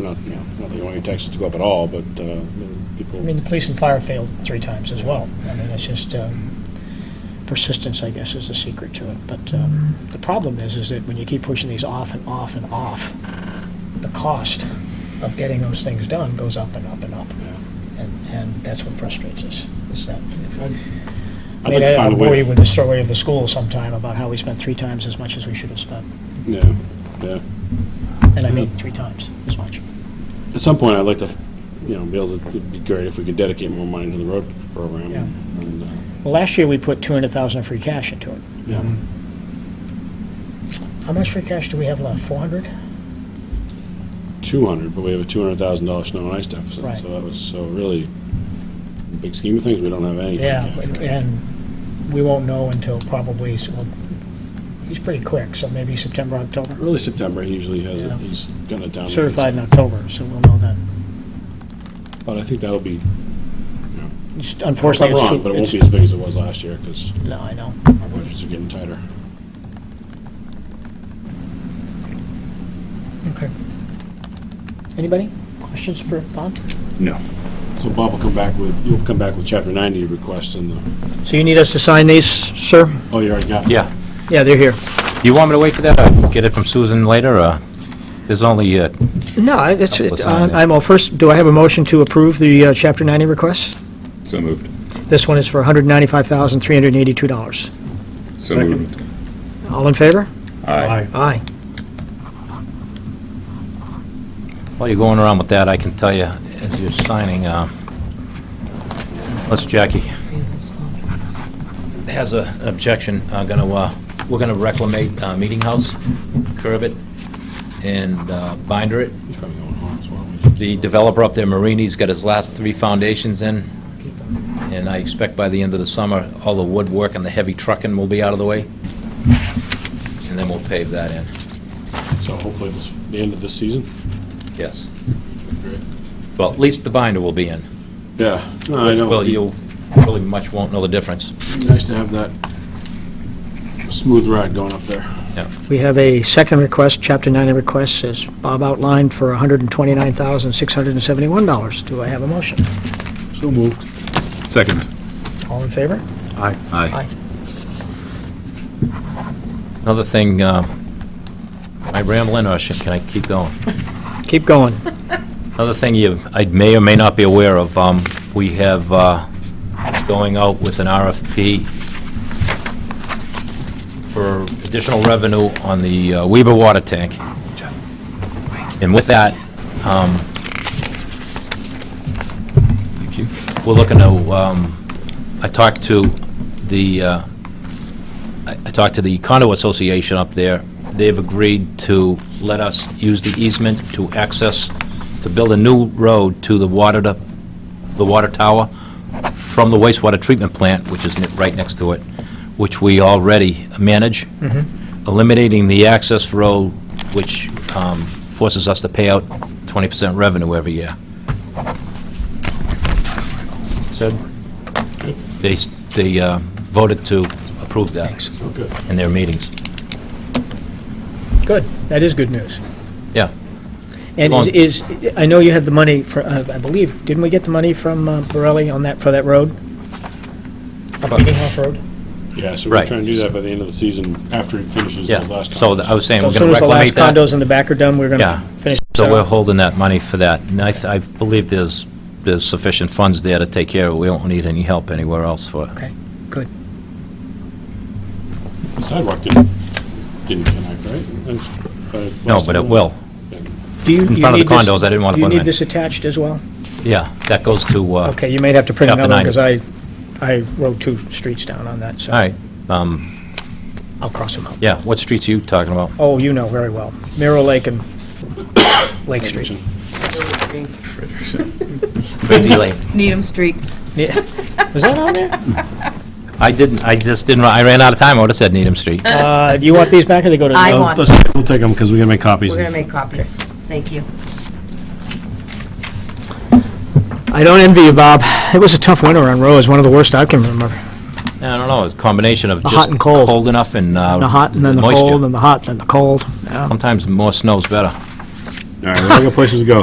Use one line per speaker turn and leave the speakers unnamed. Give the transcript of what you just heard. not, you know, not that you want your taxes to go up at all, but uh, people.
I mean, the police and fire failed three times as well. I mean, it's just um, persistence, I guess, is the secret to it. But um,
Mm-hmm.
the problem is, is that when you keep pushing these off and off and off, the cost of getting those things done goes up and up and up.
Yeah.
And, and that's what frustrates us, is that. I
I'd
mean,
like to
I-
find a
I'm
way.
worried
to-
with the story of the school sometime about how we spent three times as much as we should have spent.
Yeah, yeah.
And I mean, three times as much.
At some point, I'd like to, you know, be able to, it'd be great if we could dedicate more money to the road program.
Yeah.
And, uh,
Well, last year, we put 200,000 of free cash into it.
Yeah,
How much free cash do we have left? 400?
200, but we have a $200,000 snow and ice deficit.
Right.
So that was, so really, in the big scheme of things, we don't have any. free
Yeah,
cash,
and-
right?
and we won't know until probably, s- well, he's pretty quick, so maybe September, October.
Early September, he usually has,
Yeah.
it. he's gotten it down.
Certified in October, so we'll know then.
But I think that'll be,
Just
I'm
Unfortunately, it's too.
wrong, but it won't be
it's-
as big as it was last year because
No, I know.
our budgets are getting tighter.
Okay. Anybody? Questions for Bob?
No. So Bob will come back with, you'll come back with chapter 90 request and the,
So you need us to sign these, sir?
oh, you already got.
Yeah.
Yeah, they're here.
You want me to wait for that, or get it from Susan later, or? There's only, uh,
No, I- it's,
Couple
it-
of
uh,
signs.
I'm, well, first, do I have a motion to approve the uh, Chapter 90 request?
So moved.
This one is for $195,382.
So moved.
All in favor?
Aye.
Aye.
while you're going around with that, I can tell you, as you're signing, uh, let's Jackie has a- an objection, uh, gonna, uh, we're gonna reclimate uh, Meeting House, curb it, and uh, binder it.
He's probably going home as well.
The developer up there, Marini's, got his last three foundations in, and I expect by the end of the summer, all the woodwork and the heavy trucking will be out of the way, and then we'll pave that in,
So hopefully it's the end of this season.
yes. Well, at least the binder will be in.
Yeah. No, I know.
Well,
It'd be
you really much won't know the difference.
Nice to have that smooth ride going up there.
We have a second request, Chapter 90 request, as Bob outlined, for $129,671. Do I have a motion?
So moved.
Second.
All in favor?
Aye.
Aye.
Another thing, uh, am I rambling, or should, can I keep going?
Keep going.
Another thing you, I may or may not be aware of, um, we have, uh, going out with an RFP for additional revenue on the uh, Weber water tank. And with that, um, we're looking to, um, I talked to the, uh, I I talked to the condo association up there. They've agreed to let us use the easement to access, to build a new road to the water, to- the water tower from the wastewater treatment plant, which is ni- right next to it, which we already manage, eliminating the access road, which um, forces us to pay out 20% revenue every year. Said, they, s- they uh, voted to approve that
So good.
in their meetings.
Good. That is good news.
Yeah,
And
Come
is, is- I know you had the money for, uh, I believe, didn't we get the money from uh, Borelli on that, for that road? Up
Fuck.
Meeting House Road?
Yeah, so we're
Right.
trying to do that by the end of the season after he finishes his
yeah.
last.
So th- I was saying,
So
we're
as
going
soon
to
as the last
reclaim that.
condos in the back are done, we're going to
Yeah.
finish.
So we're holding that money for that. And I, th- I believe there's, there's sufficient funds there to take care of it. We don't need any help anywhere else for it.
Okay, good.
The Sidewalk didn't, didn't connect, right? That's- if I-
No, but it will.
Do you-
In
you
front of
need
the
this-
condos, I didn't want
Do you
to put
need
it in.
this attached as well?
Yeah, that goes to, uh, all
Okay, you may have to print
Chapter
another one, because I, I wrote two streets down on that, so
right. Um,
I'll cross them out.
Yeah, what streets are you talking about?
Oh, you know very well. Mirror Lake and Lake Street.
Richardson.
Crazy Lane.
Needham Street.
Yeah. Was that on there?
I didn't, I just didn't, I ran out of time. I would have said Needham Street.
Uh, do you want these back, or they go to?
I
Oh,
want-
Let's, we'll take them because we're gonna make copies.
We're going to make copies. Thank you.
I don't envy you, Bob. It was a tough winter on roads, one of the worst I can remember.
I don't know, it's a combination of
The
just.
hot and cold.
Cold enough and. uh,
The hot, and then the
moisture.
cold, and the hot, and the cold. Yeah.
Sometimes more snow's better.
All right, we're gonna places to go.